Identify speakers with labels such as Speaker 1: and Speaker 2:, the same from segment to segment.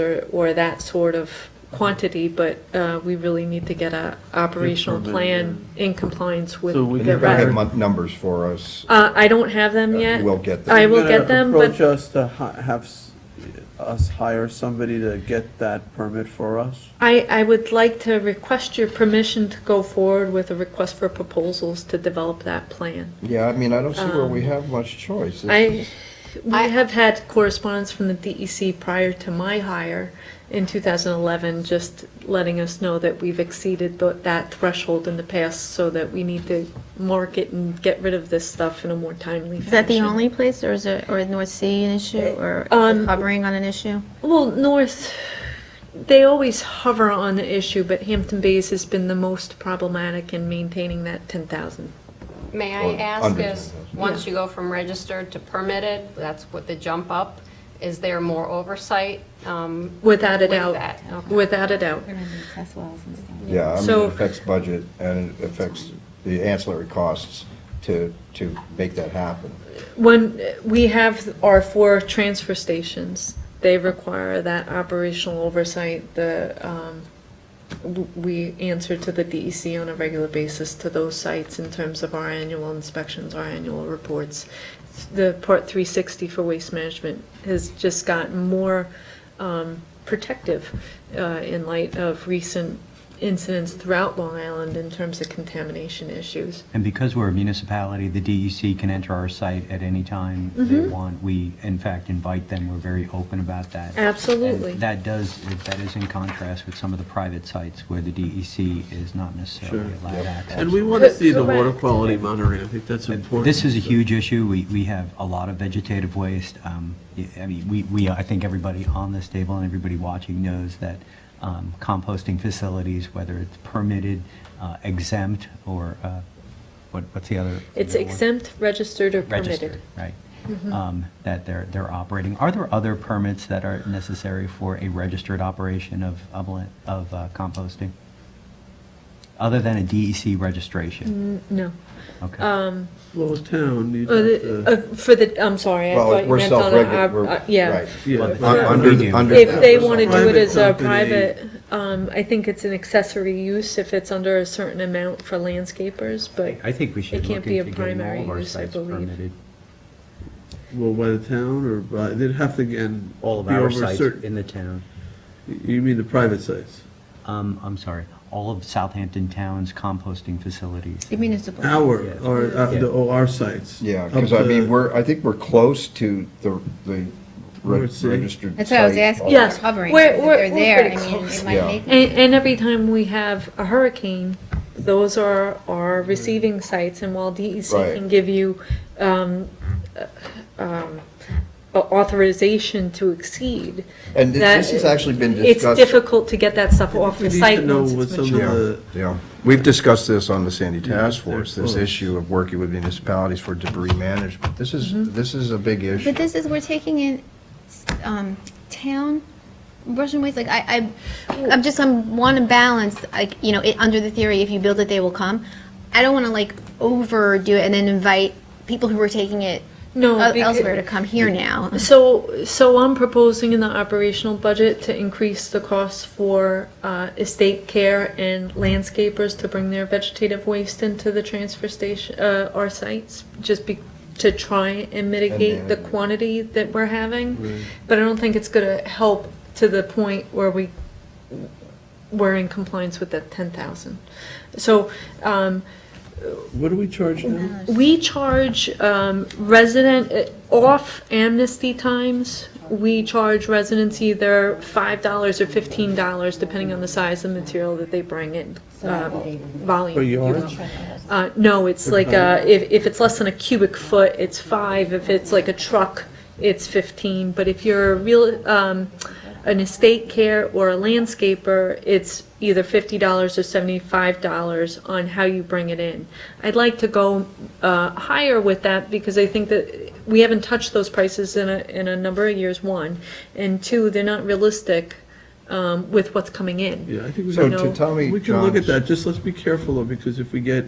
Speaker 1: or, or that sort of quantity, but uh, we really need to get a operational
Speaker 2: Implement,
Speaker 1: plan in compliance with
Speaker 2: So we
Speaker 1: the
Speaker 2: can hire-
Speaker 1: rest.
Speaker 2: Right.
Speaker 3: Have numbers for us.
Speaker 1: Uh, I don't have them
Speaker 3: Uh,
Speaker 1: yet.
Speaker 3: we'll get them.
Speaker 1: I
Speaker 3: You're
Speaker 1: will get them, but
Speaker 2: Approach us to hi- have s- us hire somebody to get that permit for us?
Speaker 1: I, I would like to request your permission to go forward with a request for proposals to develop that plan.
Speaker 3: Yeah, I mean, I don't see where we have much choice. This
Speaker 1: Um, I,
Speaker 3: is-
Speaker 1: we have had correspondence from the DEC prior to my hire in 2011, just letting us know that we've exceeded tho- that threshold in the past, so that we need to mark it and get rid of this stuff in a more timely fashion.
Speaker 4: Is that the only place, or is it, or North Sea an issue, or
Speaker 1: Um,
Speaker 4: is it hovering on an issue?
Speaker 1: Well, North, they always hover on the issue, but Hampton Bays has been the most problematic in maintaining that 10,000.
Speaker 5: May
Speaker 3: Or
Speaker 5: I ask
Speaker 3: under
Speaker 5: is,
Speaker 3: 10,000.
Speaker 5: once you go from registered to permitted, that's what the jump up, is there more oversight? Um,
Speaker 1: Without a
Speaker 5: With
Speaker 1: doubt.
Speaker 5: that, okay.
Speaker 1: Without a doubt.
Speaker 3: Yeah, I mean,
Speaker 1: So-
Speaker 3: it affects budget and it affects the ancillary costs to, to make that happen.
Speaker 1: When, we have our four transfer stations, they require that operational oversight, the, um, w- we answer to the DEC on a regular basis to those sites in terms of our annual inspections, our annual reports. The Part 360 for waste management has just gotten more um, protective uh, in light of recent incidents throughout Long Island in terms of contamination issues.
Speaker 6: And because we're a municipality, the DEC can enter our site at any time they
Speaker 1: Mm-hmm.
Speaker 6: want. We, in fact, invite them. We're very open about that.
Speaker 1: Absolutely.
Speaker 6: And that does, that is in contrast with some of the private sites where the DEC is not necessarily
Speaker 2: Sure.
Speaker 6: allowed access.
Speaker 2: And we want to see the water
Speaker 1: Correct.
Speaker 2: quality monitoring, I think that's important.
Speaker 6: This is a huge issue. We, we have a lot of vegetative waste. Um, y- I mean, we, we, I think everybody on this table and everybody watching knows that um, composting facilities, whether it's permitted, uh, exempt, or, uh, what, what's the other?
Speaker 1: It's
Speaker 6: the other one?
Speaker 1: exempt, registered, or permitted.
Speaker 6: Registered, right?
Speaker 1: Mm-hmm.
Speaker 6: Um, That they're, they're operating. Are there other permits that are necessary for a registered operation of, of la- of uh, composting? Other than a DEC registration?
Speaker 1: N- No.
Speaker 6: Okay.
Speaker 1: um,
Speaker 2: Little town, you
Speaker 1: Oh, the- uh, For the, I'm sorry, I
Speaker 3: Well,
Speaker 1: thought you
Speaker 3: we're
Speaker 1: meant on a,
Speaker 3: self-regulated,
Speaker 1: our-
Speaker 3: we're,
Speaker 1: uh, yeah.
Speaker 3: right.
Speaker 2: Yeah.
Speaker 6: Well, the-
Speaker 3: Un- Under, the-
Speaker 6: If
Speaker 3: under.
Speaker 1: If
Speaker 3: that,
Speaker 1: they
Speaker 3: we're
Speaker 1: want to do it
Speaker 2: Private
Speaker 1: as a
Speaker 2: company.
Speaker 1: private, um, I think it's an accessory use if it's under a certain amount for landscapers, but
Speaker 6: I think we should
Speaker 1: It can't
Speaker 6: look
Speaker 1: be a
Speaker 6: into getting all
Speaker 1: primary
Speaker 6: of our
Speaker 1: use, I
Speaker 6: sites
Speaker 1: believe.
Speaker 6: permitted.
Speaker 2: Well, by the town or by, they'd have to, again.
Speaker 6: All of
Speaker 2: be
Speaker 6: our
Speaker 2: over
Speaker 6: sites
Speaker 2: certain-
Speaker 6: in the town.
Speaker 2: You mean the private sites?
Speaker 6: Um, I'm sorry, all of Southampton Town's composting facilities.
Speaker 4: The municipal.
Speaker 2: Our,
Speaker 6: Yeah.
Speaker 2: or, uh, the, oh, our sites?
Speaker 3: Yeah,
Speaker 2: Up
Speaker 3: because I mean,
Speaker 2: to-
Speaker 3: we're, I think we're close to the, the re-
Speaker 2: Let's see.
Speaker 3: registered.
Speaker 4: That's what I was
Speaker 3: site.
Speaker 4: asking,
Speaker 1: Yes,
Speaker 4: if they're hovering,
Speaker 1: we're-
Speaker 4: if
Speaker 1: we're-
Speaker 4: they're
Speaker 1: we're
Speaker 4: there, I
Speaker 1: pretty
Speaker 4: mean,
Speaker 1: close.
Speaker 4: it
Speaker 3: Yeah.
Speaker 4: might make
Speaker 1: And, and every time we have a hurricane, those are our receiving sites, and while DEC
Speaker 3: Right.
Speaker 1: can give you um, uh, um, authorization to exceed.
Speaker 3: And thi-
Speaker 1: that-
Speaker 3: this has actually been
Speaker 1: It's
Speaker 3: discussed.
Speaker 1: difficult to get that stuff off
Speaker 2: We
Speaker 1: the
Speaker 2: need to
Speaker 1: site
Speaker 2: know
Speaker 1: once
Speaker 2: what
Speaker 1: it's
Speaker 2: some of
Speaker 1: mature.
Speaker 2: the-
Speaker 3: Yeah, yeah. We've discussed this on the Sandy
Speaker 2: Yeah,
Speaker 3: Task Force,
Speaker 2: they're
Speaker 3: this
Speaker 2: close.
Speaker 3: issue of working with municipalities for debris management. This is,
Speaker 1: Mm-hmm.
Speaker 3: this is a big issue.
Speaker 4: But this is, we're taking in, s- um, town, Russian waste, like, I, I, I'm just, I'm, wanna balance, like, you know, it, under the theory, if you build it, they will come. I don't wanna like overdo it and then invite people who are taking it
Speaker 1: No,
Speaker 4: el-
Speaker 1: becau-
Speaker 4: elsewhere to come here now.
Speaker 1: So, so I'm proposing in the operational budget to increase the costs for uh, estate care and landscapers to bring their vegetative waste into the transfer station, uh, our sites, just be, to try and mitigate the
Speaker 3: manage it.
Speaker 1: quantity that we're having. But I don't think it's gonna help to the point where we, we're in compliance with that ten thousand. So, um,
Speaker 2: What do we charge now?
Speaker 1: we charge um, resident, uh, off amnesty times, we charge residents either $5 or $15, depending on the size of material that they bring in, um, volume.
Speaker 2: Per
Speaker 1: if you will.
Speaker 2: yard?
Speaker 1: Uh, No, it's like, uh, if if it's less than a cubic foot, it's 5. If it's like a truck, it's 15. But if you're a real, um, an estate care or a landscaper, it's either $50 or $75 on how you bring it in. I'd like to go uh, higher with that because I think that we haven't touched those prices in a, in a number of years, one. And two, they're not realistic um, with what's coming in.
Speaker 2: Yeah, I think we
Speaker 3: So
Speaker 2: got
Speaker 1: No.
Speaker 3: to Tommy
Speaker 2: We can look at
Speaker 3: John's-
Speaker 2: that, just let's be careful though, because if we get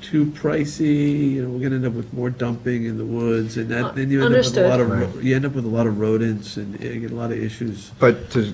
Speaker 2: too pricey, you know, we're gonna end up with more dumping in the woods and that, then you end up with a lot
Speaker 1: Understood.
Speaker 2: eh, of, ro- you end up with a lot of rodents and uh, you get a lot of issues.
Speaker 3: But to